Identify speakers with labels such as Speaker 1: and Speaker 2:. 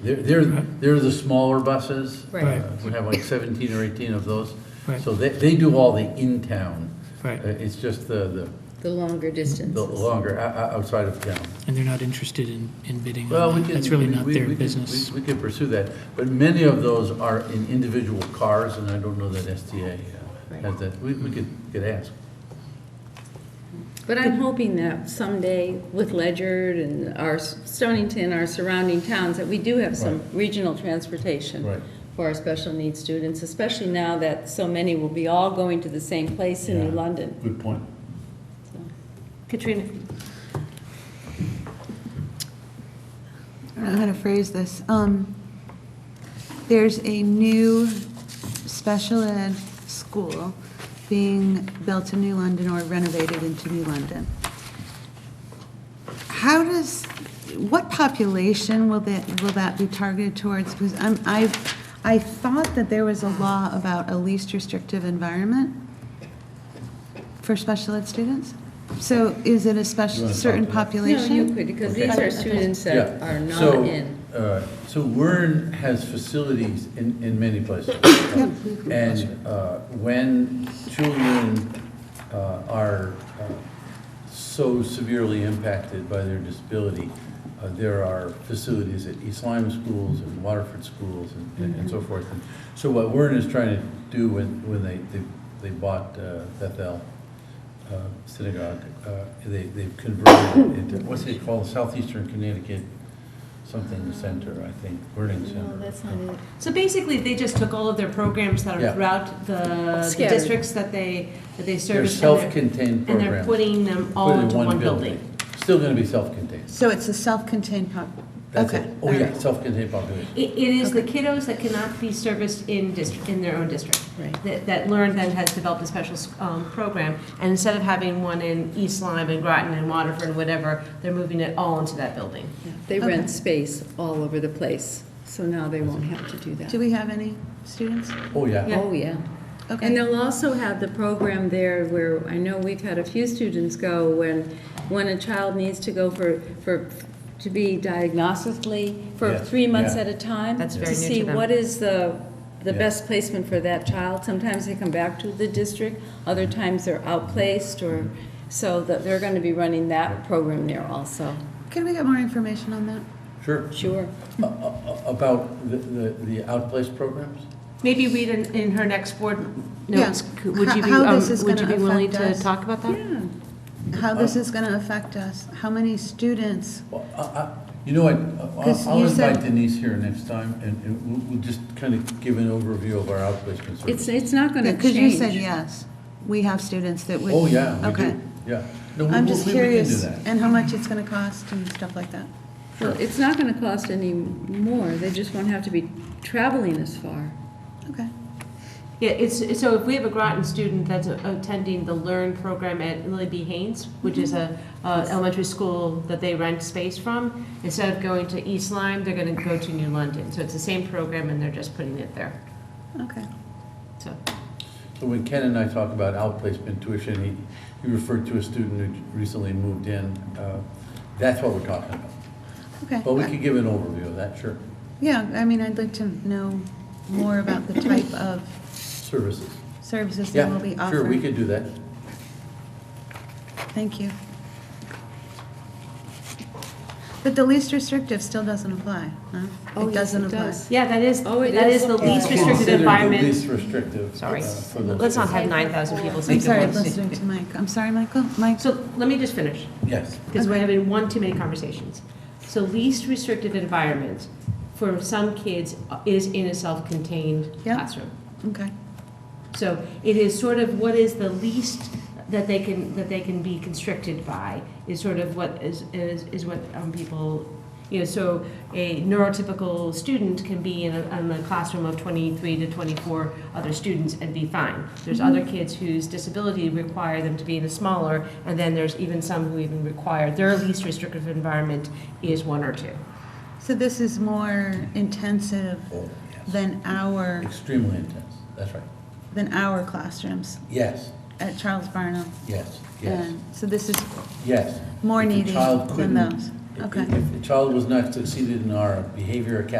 Speaker 1: They're, they're, they're the smaller buses.
Speaker 2: Right.
Speaker 1: Uh, We have like 17 or 18 of those.
Speaker 3: Right.
Speaker 1: So they, they do all the in-town.
Speaker 3: Right.
Speaker 1: Uh, It's just the, the
Speaker 2: The longer distances.
Speaker 1: the longer, o- o- outside of town.
Speaker 3: and they're not interested in, in bidding. on
Speaker 1: Well, we
Speaker 3: that.
Speaker 1: can.
Speaker 3: That's really
Speaker 1: we-
Speaker 3: not
Speaker 1: we-
Speaker 3: their
Speaker 1: we can-
Speaker 3: business.
Speaker 1: We we can pursue that, but many of those are in individual cars, and I don't know that STA uh, has
Speaker 2: Right.
Speaker 1: that. We, we could, could ask.
Speaker 2: But I'm hoping that someday with Ledyard and our s- Stonington, our surrounding towns, that we do have some regional
Speaker 1: Right.
Speaker 2: transportation for our special needs students, especially now that so many will be all going to the same place in New
Speaker 1: Yeah.
Speaker 2: London.
Speaker 1: Good point.
Speaker 2: Katrina?
Speaker 4: I don't know how to phrase this. Um, There's a new special ed school being built in New London or renovated into New London. How does, what population will that, will that be targeted towards? Because I'm, I, I thought that there was a law about a least restrictive environment for special ed students. So is it a
Speaker 1: You
Speaker 4: special,
Speaker 1: wanna talk
Speaker 4: certain
Speaker 1: to that?
Speaker 2: No,
Speaker 4: population?
Speaker 2: you could, because
Speaker 1: Okay.
Speaker 2: these are students that
Speaker 1: Yeah.
Speaker 2: are not
Speaker 1: So,
Speaker 2: in.
Speaker 1: uh, So Wern has facilities in, in many places. And uh, when children uh, are uh, so severely impacted by their disability, uh, there are facilities at East Lyme schools and Waterford schools and- and and so forth. And So what Wern is trying to do when, when they, they- they bought uh, Bethel uh, Synagogue, uh, they, they've converted it into, what's it called, Southeastern Connecticut something center, I think, Learning Center.
Speaker 2: it.
Speaker 5: So basically, they just took all of their programs that
Speaker 1: Yeah.
Speaker 5: are throughout the the
Speaker 2: Scattered.
Speaker 5: districts that they, that they
Speaker 1: They're
Speaker 5: service. and they're-
Speaker 1: self-contained
Speaker 5: And they're
Speaker 1: programs.
Speaker 5: putting them
Speaker 1: Put
Speaker 5: all
Speaker 1: it in
Speaker 5: into one building.
Speaker 1: Still gonna be self-contained.
Speaker 4: So it's a self-contained pop,
Speaker 1: That's
Speaker 4: okay.
Speaker 1: it. Oh,
Speaker 4: all
Speaker 1: yeah,
Speaker 4: right.
Speaker 1: self-contained population.
Speaker 5: It, it is the kiddos that cannot be serviced in district, in their own district.
Speaker 2: Right.
Speaker 5: That, that Learn then has developed a special, um, program, and instead of having one in East Lyme and Groton and Waterford and whatever, they're moving it all into that building.
Speaker 2: They
Speaker 4: Okay.
Speaker 2: rent space all over the place, so now they won't have to do that.
Speaker 4: Do we have any students?
Speaker 1: Oh, yeah.
Speaker 2: Oh, yeah. And
Speaker 4: Okay.
Speaker 2: they'll also have the program there where, I know we've had a few students go when, when a child needs to go for, for, to be diagnostically for
Speaker 1: Yeah,
Speaker 2: three months
Speaker 1: yeah.
Speaker 2: at a time.
Speaker 5: That's very new to
Speaker 2: see
Speaker 5: them.
Speaker 2: what is the, the
Speaker 1: Yeah.
Speaker 2: best placement for that child. Sometimes they come back to the district, other times they're outplaced or, so that they're going to be running that program there also.
Speaker 4: Can we get more information on that?
Speaker 1: Sure.
Speaker 2: Sure.
Speaker 1: A- a- a- About the, the the outplace programs?
Speaker 5: Maybe read in, in her next board notes,
Speaker 4: Yeah.
Speaker 5: would you be,
Speaker 4: How- how this
Speaker 5: um,
Speaker 4: is
Speaker 5: would you
Speaker 4: gonna
Speaker 5: be willing
Speaker 4: affect
Speaker 5: to
Speaker 4: us.
Speaker 5: talk about that?
Speaker 2: Yeah.
Speaker 4: How
Speaker 1: Oh.
Speaker 4: this is going to affect us? How many students?
Speaker 1: Well, I- I- You know what, I'll-
Speaker 4: 'Cause
Speaker 1: I'll
Speaker 4: you said-
Speaker 1: invite Denise here next time, and and we'll- we'll just kind of give an overview of our outplacement
Speaker 2: It's,
Speaker 1: services.
Speaker 2: it's not going to change.
Speaker 4: Because you said yes, we have students that would.
Speaker 1: Oh, yeah, we
Speaker 4: Okay.
Speaker 1: do, yeah. No, we-
Speaker 4: I'm
Speaker 1: we-
Speaker 4: just
Speaker 1: we- we can do
Speaker 4: curious,
Speaker 1: that.
Speaker 4: and how much it's going to cost and stuff like that.
Speaker 2: Well, It's not going to cost any more. They just won't have to be traveling as far.
Speaker 4: Okay.
Speaker 5: Yeah, it's, so if we have a Groton student that's attending the Learn program at Lily B. Haynes, which is a, a elementary school that they rent space from, instead of going to East Lyme, they're gonna go to New London. So it's the same program and they're just putting it there,
Speaker 4: Okay.
Speaker 5: so.
Speaker 1: So when Ken and I talk about outplacement tuition, he, he referred to a student who recently moved in. uh, That's what we're talking about.
Speaker 4: Okay. Uh,
Speaker 1: But we could give an overview of that, sure.
Speaker 4: Yeah, I mean, I'd like to know more about the type of
Speaker 1: Services.
Speaker 4: services that
Speaker 1: Yeah,
Speaker 4: will be offered.
Speaker 1: Sure, we could do that.
Speaker 4: Thank you. But the least restrictive still doesn't apply, huh?
Speaker 2: Oh, yes,
Speaker 4: It doesn't
Speaker 2: it
Speaker 4: apply.
Speaker 2: does.
Speaker 5: Yeah, that is,
Speaker 2: Oh, it
Speaker 5: that
Speaker 2: is.
Speaker 5: is the least
Speaker 2: Yeah.
Speaker 5: restricted
Speaker 1: Considered the
Speaker 5: environment.
Speaker 1: least restrictive.
Speaker 5: Sorry,
Speaker 1: uh, for those
Speaker 5: let's not have
Speaker 1: kids.
Speaker 5: nine thousand people
Speaker 4: I'm
Speaker 5: take
Speaker 4: sorry,
Speaker 5: it
Speaker 4: I'm
Speaker 5: once.
Speaker 4: listening to Mike. I'm sorry, Michael. Mike,
Speaker 5: So let me just finish.
Speaker 1: Yes.
Speaker 5: because we're having one too many conversations. So least restrictive environment for some kids is in a self-contained
Speaker 4: Yeah.
Speaker 5: classroom.
Speaker 4: okay,
Speaker 5: So it is sort of what is the least that they can, that they can be constricted by is sort of what is, is, is what um, people, you know, so a neurotypical student can be in a, in a classroom of 23 to 24 other students and be fine. There's other kids whose disability require them to be in a smaller, and then there's even some who even require, their least restrictive environment is one or two.
Speaker 4: so this is more intensive
Speaker 1: Oh, yes.
Speaker 4: than our,
Speaker 1: Extremely intense, that's right.
Speaker 4: than our classrooms
Speaker 1: Yes,
Speaker 4: at Charles Barnum.
Speaker 1: yes, yes,
Speaker 4: And So this is,
Speaker 1: yes.
Speaker 4: More
Speaker 1: If the
Speaker 4: needy
Speaker 1: child
Speaker 4: than
Speaker 1: couldn't-
Speaker 4: those.
Speaker 1: if-
Speaker 4: Okay.
Speaker 1: If the child was not succeeded in our behavior academy